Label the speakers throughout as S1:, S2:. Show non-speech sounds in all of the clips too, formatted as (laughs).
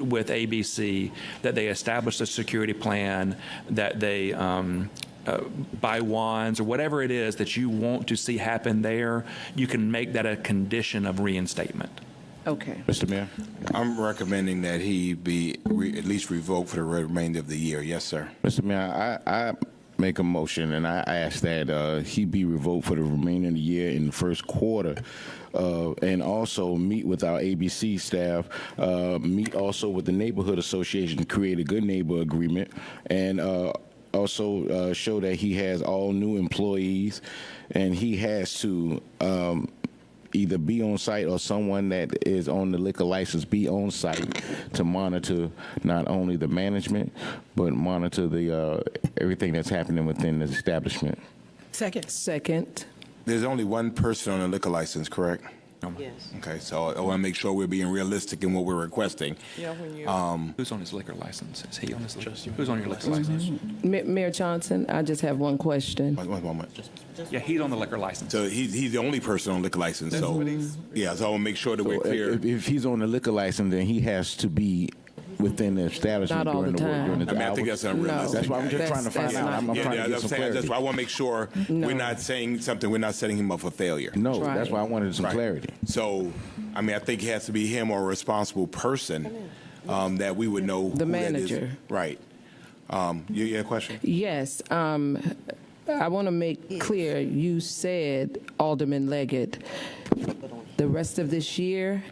S1: with ABC that they establish a security plan, that they um, uh, buy wands or whatever it is that you want to see happen there, you can make that a condition of reinstatement.
S2: Okay.
S3: Mr. Mayor?
S4: I'm recommending that he be re- at least revoked for the remainder of the year. Yes, sir.
S3: Mr. Mayor, I, I make a motion and I ask that uh, he be revoked for the remainder of the year in the first quarter. Uh, and also meet with our ABC staff, uh, meet also with the neighborhood association to create a good neighbor agreement, and uh, also uh, show that he has all new employees, and he has to um, either be on site or someone that is on the liquor license be on site to monitor not only the management but monitor the uh, everything that's happening within the establishment.
S5: Second.
S2: Second.
S4: There's only one person on a liquor license, correct?
S2: Yes.
S4: Okay, so I want to make sure we're being realistic in what we're requesting.
S5: Yeah, when you.
S3: Uh,
S1: Who's on his liquor license? Is he on his liquor? Who's on your liquor license?
S2: Ma- Mayor Johnson, I just have one question.
S4: One- one moment.
S1: Yeah, he's on the liquor license.
S4: So he's, he's the only person on liquor license, so, yeah, so I want to make sure that we're clear.
S3: If, if he's on the liquor license, then he has to be within the establishment
S2: Not all
S3: during
S2: the
S3: the, work
S2: time.
S3: during the
S4: I mean, I think
S3: hours.
S4: that's unrealistic.
S3: That's why I'm just
S2: That's-
S3: trying to find
S2: that's
S3: out.
S2: not-
S3: I'm, I'm
S4: Yeah,
S3: trying
S4: yeah,
S3: to get
S4: that's
S3: some
S4: what I'm saying. That's
S3: clarity.
S4: why I want to make sure we're not saying something, we're not setting him up for failure.
S3: No, that's
S2: Right.
S3: why I wanted some
S4: Right.
S3: clarity.
S4: So, I mean, I think it has to be him or a responsible person um, that we would know.
S2: The
S4: who that is.
S2: manager.
S4: Right. Um, You you had a question?
S2: Yes, um, I want to make clear, you said Alderman Leggett, the rest of this year,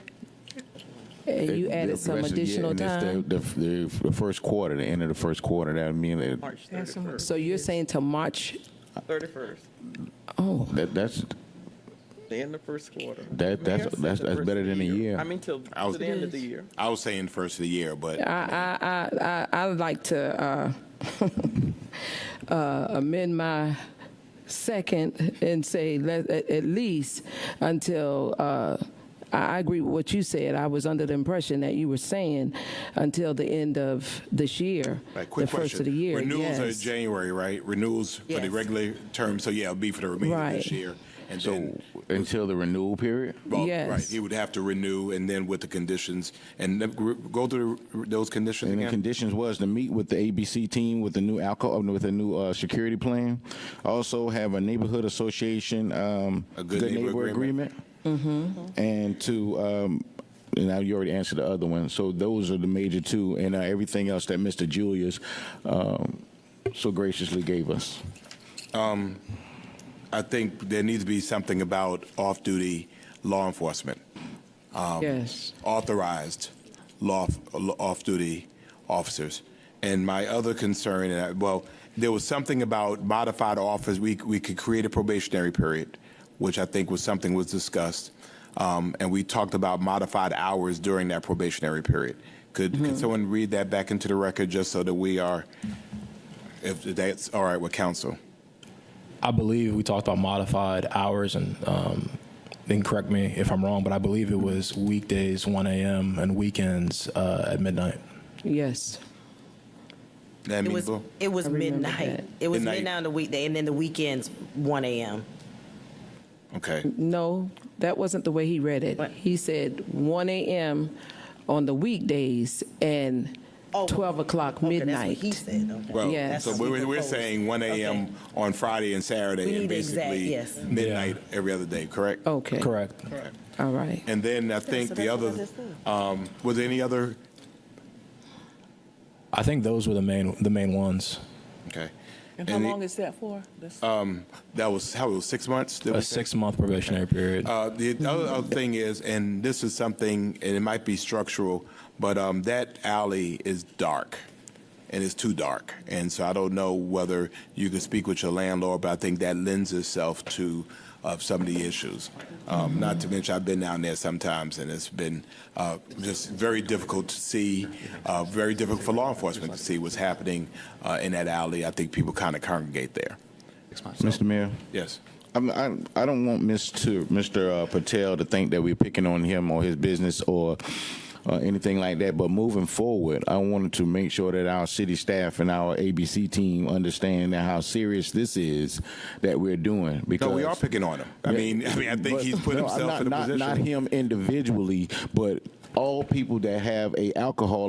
S2: and you
S3: The- the
S2: added some
S3: rest of the year,
S2: additional
S3: and it's
S2: time.
S3: The, the, the, the first quarter, the end of the first quarter. That mean that,
S2: So you're saying to March,
S6: 31st,
S2: oh,
S3: that that's
S6: the end of first quarter.
S3: That- that's-
S6: Mayor said
S3: that's-
S6: the
S3: that's
S6: first
S3: better than a year.
S6: I mean, till,
S4: I was-
S6: to the end of the year.
S4: I was saying first of the year, but
S2: I, I, I, I I'd like to uh, (laughs) uh, amend my second and say let, at, at least until. Uh, I I agree with what you said. I was under the impression that you were saying until the end of this year,
S4: Right, quick
S2: the first
S4: question.
S2: of the year.
S4: Renewals are
S2: yes.
S4: January, right? Renewals for the
S2: Yes.
S4: regular term, so yeah, it'll be for the remainder of this
S2: Right.
S4: year. And
S3: so
S4: then,
S3: until the renewal period.
S4: well, right,
S2: Yes.
S4: he would have to renew and then with the conditions, and then gr- go through those conditions
S3: And the
S4: again?
S3: conditions was to meet with the ABC team with the new alcohol, with a new uh, security plan. Also have a neighborhood association, um,
S4: A good neighbor agreement.
S3: Mm-hmm. And to, um, and now you already answered the other one. So those are the major two, and uh, everything else that Mr. Julius um, so graciously gave us.
S4: I think there needs to be something about off-duty law enforcement,
S2: yes.
S4: authorized law, off-duty officers. And my other concern, and I, well, there was something about modified office, we, we could create a probationary period, which I think was something was discussed. Um, and we talked about modified hours during that probationary period. Could, could someone read that back into the record just so that we are, if that's all right with council?
S7: I believe we talked about modified hours and um, then correct me if I'm wrong, but I believe it was weekdays 1 a.m. and weekends uh, at midnight.
S2: Yes.
S4: That
S8: It was,
S4: amenable?
S8: it was
S2: I remember
S8: midnight.
S2: that.
S8: It was
S4: Midnight.
S8: midnight on the weekday, and then the weekends, one AM.
S4: Okay.
S2: No, that wasn't the way he read it.
S8: What?
S2: He said 1 a.m. on the weekdays and
S8: Oh,
S2: 12 o'clock
S8: Okay,
S2: midnight.
S8: That's what he said, okay.
S4: Well,
S2: Yes.
S4: so we're, we're
S8: Proposed.
S4: saying 1 a.m. on Friday and
S8: We
S4: Saturday and
S8: need the exact-
S4: basically
S8: yes.
S4: midnight every other day, correct?
S2: Okay.
S7: Correct.
S2: All right.
S4: And then I think the other, um, was there any other?
S7: I think those were the main the main ones.
S4: Okay.
S5: And how
S4: the-
S5: long is that for? That's-
S4: That was, how, it was six months? that
S7: A
S4: we-
S7: Uh, six month probationary period.
S4: Uh, the other, other thing is, and this is something, and it might be structural, but um, that alley is dark, and it's too dark. And so I don't know whether you can speak with your landlord, but I think that lends itself to of some of the issues. Um, not to mention, I've been down there sometimes, and it's been uh, just very difficult to see, uh, very difficult for law enforcement to see what's happening uh, in that alley. I think people kind of congregate there.
S3: Mr. Mayor?
S4: Yes.
S3: I'm, I, I don't want Mr. Mr. Uh, Patel to think that we're picking on him or his business or uh, anything like that. But moving forward, I wanted to make sure that our city staff and our ABC team understand that how serious this is that we're doing. Because
S4: No, we are picking on him. I mean, I mean, I think
S3: but-
S4: he's put
S3: no,
S4: himself
S3: not,
S4: in a
S3: not,
S4: position.
S3: Not him individually, but all people that have a alcohol